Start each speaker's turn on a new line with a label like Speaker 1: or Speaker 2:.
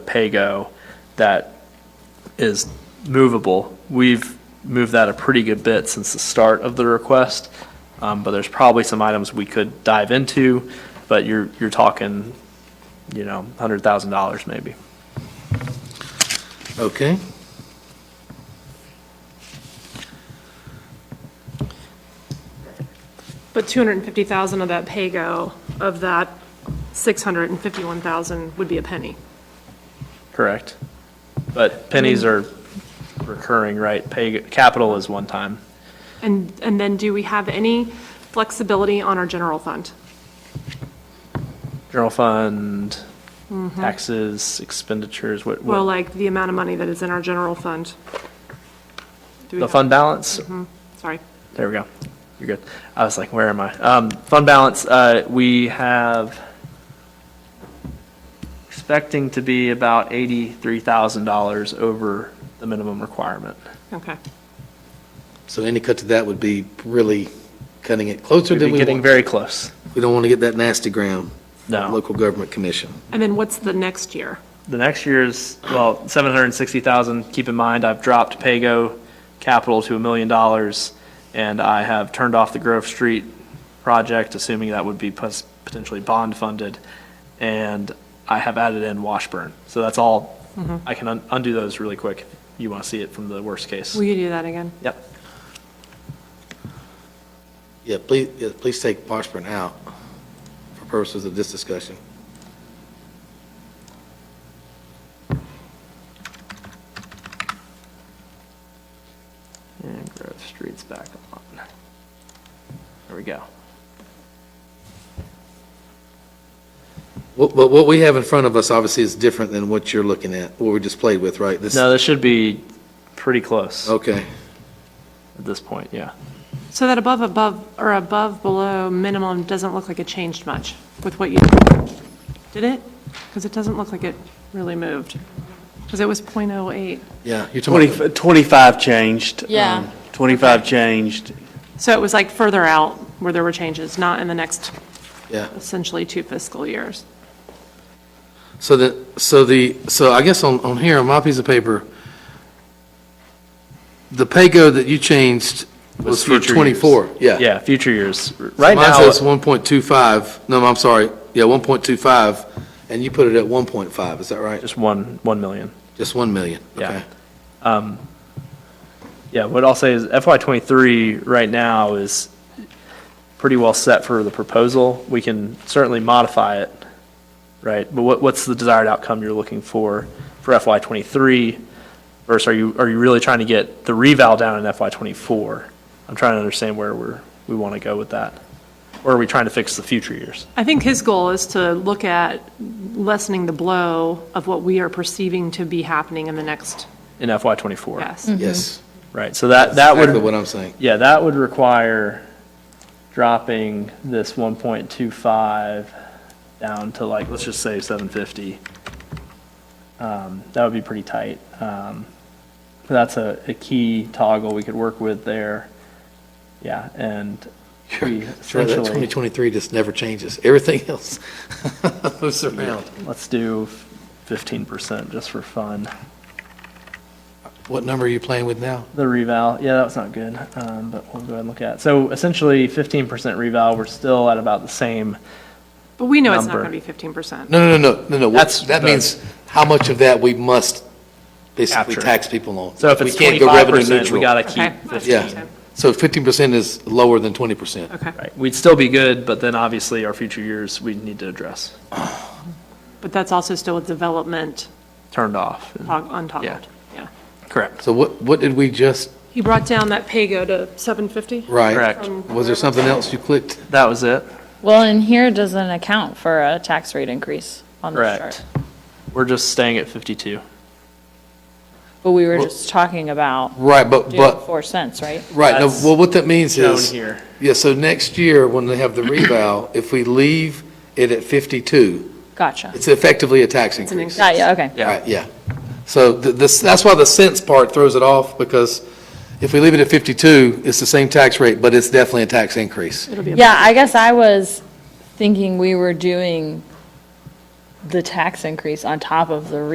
Speaker 1: pay-go that is movable. We've moved that a pretty good bit since the start of the request, um, but there's probably some items we could dive into, but you're, you're talking, you know, $100,000 maybe.
Speaker 2: Okay.
Speaker 3: But 250,000 of that pay-go, of that 651,000 would be a penny.
Speaker 1: Correct. But pennies are
Speaker 3: Mm-hmm.
Speaker 1: recurring, right? Pay, capital is one time.
Speaker 3: And, and then do we have any flexibility on our general fund?
Speaker 1: General fund, taxes, expenditures, what,
Speaker 3: Mm-hmm. Well,
Speaker 1: what,
Speaker 3: like the amount of money that is in our general fund? Do we
Speaker 1: the
Speaker 3: have-
Speaker 1: fund balance?
Speaker 3: Sorry.
Speaker 1: There we go. You're good. I was like, where am I? Um, fund balance, uh, we have expecting to be about eighty-three thousand dollars over the minimum requirement.
Speaker 3: Okay.
Speaker 2: So any cut to that would be really cutting it closer
Speaker 1: We'd
Speaker 2: than
Speaker 1: be
Speaker 2: we
Speaker 1: getting
Speaker 2: want.
Speaker 1: very close.
Speaker 2: We don't want to get that nasty ground,
Speaker 1: No.
Speaker 2: local government commission.
Speaker 3: And then what's the next year?
Speaker 1: The next year's, well, seven hundred and sixty thousand. Keep in mind, I've dropped Pago capital to a million dollars, and I have turned off the Grove Street project, assuming that would be pos- potentially bond funded, and I have added in Washburn. So that's all, I can un- undo those really quick. if You want to see it from the worst case.
Speaker 3: Will you do that again?
Speaker 1: Yep,
Speaker 2: Yeah, please, yeah, please take Washburn out for purposes of this discussion.
Speaker 1: and Grove Street's back on. There we go.
Speaker 2: What, but what we have in front of us obviously is different than what you're looking at, what we just played with, right? This-
Speaker 1: No, this should be pretty close at
Speaker 2: Okay,
Speaker 1: this point, yeah.
Speaker 3: So that above, above, or above, below, minimum doesn't look like it changed much with what you, did it? Because it doesn't look like it really moved. Because it was .08.
Speaker 2: yeah. You're talking about
Speaker 4: 20 25 changed.
Speaker 5: Yeah.
Speaker 4: um, 25 changed.
Speaker 3: So it was like further out where there were changes, not in the next
Speaker 2: Yeah.
Speaker 3: essentially two fiscal years.
Speaker 2: So the, so the, so I guess on, on here, on my piece of paper, the pay-go that you changed was for
Speaker 1: future years.
Speaker 2: 24. Yeah.
Speaker 1: Yeah, future years. Right
Speaker 2: Mine
Speaker 1: now.
Speaker 2: says 1.25, no, I'm sorry, yeah, 1.25, and you put it at 1.5, is that right?
Speaker 1: Just one, 1 million.
Speaker 2: Just 1 million?
Speaker 1: Yeah. Um,
Speaker 2: Okay.
Speaker 1: Yeah, what I'll say is FY twenty-three right now is pretty well set for the proposal. We can certainly modify it, right? But what, what's the desired outcome you're looking for for FY twenty-three? Versus are you, are you really trying to get the reval down in FY twenty-four? I'm trying to understand where we're, we want to go with that. Or are we trying to fix the future years?
Speaker 3: I think his goal is to look at lessening the blow of what we are perceiving to be happening in the next,
Speaker 1: In FY twenty-four?
Speaker 3: yes.
Speaker 2: Yes.
Speaker 1: Right, so that, that would.
Speaker 2: Exactly what I'm saying.
Speaker 1: Yeah, that would require dropping this one point two five down to like, let's just say seven fifty. Um, that would be pretty tight. Um, but that's a, a key toggle we could work with there. Yeah, and we
Speaker 2: Sure, that
Speaker 1: essentially,
Speaker 2: 2023 just never changes. Everything else moves around.
Speaker 1: let's do fifteen percent just for fun.
Speaker 2: What number are you playing with now?
Speaker 1: The reval, yeah, that was not good, um, but we'll go ahead and look at it. So essentially fifteen percent reval, we're still at about the same
Speaker 3: But we know it's not
Speaker 1: Number.
Speaker 3: going to be 15%.
Speaker 2: No, no, no, no, no, no. what-
Speaker 1: That's
Speaker 2: That
Speaker 1: the-
Speaker 2: means how much of that we must basically
Speaker 1: Capture.
Speaker 2: tax people on.
Speaker 1: So if
Speaker 2: We
Speaker 1: it's
Speaker 2: can't go
Speaker 1: twenty-five
Speaker 2: revenue
Speaker 1: percent, we
Speaker 2: neutral.
Speaker 1: gotta
Speaker 3: Okay,
Speaker 1: keep
Speaker 3: I
Speaker 1: fifteen.
Speaker 3: see what you're
Speaker 2: Yeah,
Speaker 3: saying.
Speaker 2: so 15% is lower than 20%.
Speaker 3: Okay,
Speaker 1: Right, we'd still be good, but then obviously our future years, we need to address,
Speaker 3: but that's also still a development uh,
Speaker 1: turned off.
Speaker 3: tog-
Speaker 1: Yeah.
Speaker 3: untoggled, yeah.
Speaker 1: Correct.
Speaker 2: So what, what did we just,
Speaker 3: You brought down that pay-go to 750?
Speaker 2: right?
Speaker 1: Correct.
Speaker 2: Was there something else you clicked?
Speaker 1: That was it.
Speaker 5: Well, and here doesn't account for a tax rate increase on the
Speaker 1: Correct.
Speaker 5: chart.
Speaker 1: We're just staying at fifty-two.
Speaker 5: But we were just talking about
Speaker 2: Right, but,
Speaker 5: doing
Speaker 2: but,
Speaker 5: four cents, right?
Speaker 2: right, no,
Speaker 1: That's
Speaker 2: well, what that means
Speaker 1: Down
Speaker 2: is,
Speaker 1: here.
Speaker 2: yeah, so next year, when they have the revow, if we leave it at 52,
Speaker 5: Gotcha.
Speaker 2: it's effectively a tax
Speaker 3: an
Speaker 2: increase.
Speaker 5: Yeah, yeah, okay.
Speaker 1: Yeah.
Speaker 2: Right, yeah. So th- this, that's why the cents part throws it off, because if we leave it at 52, it's the same tax rate, but it's definitely a tax increase.
Speaker 3: It'll be a-
Speaker 5: Yeah, I guess I was thinking we were doing the tax increase on top of the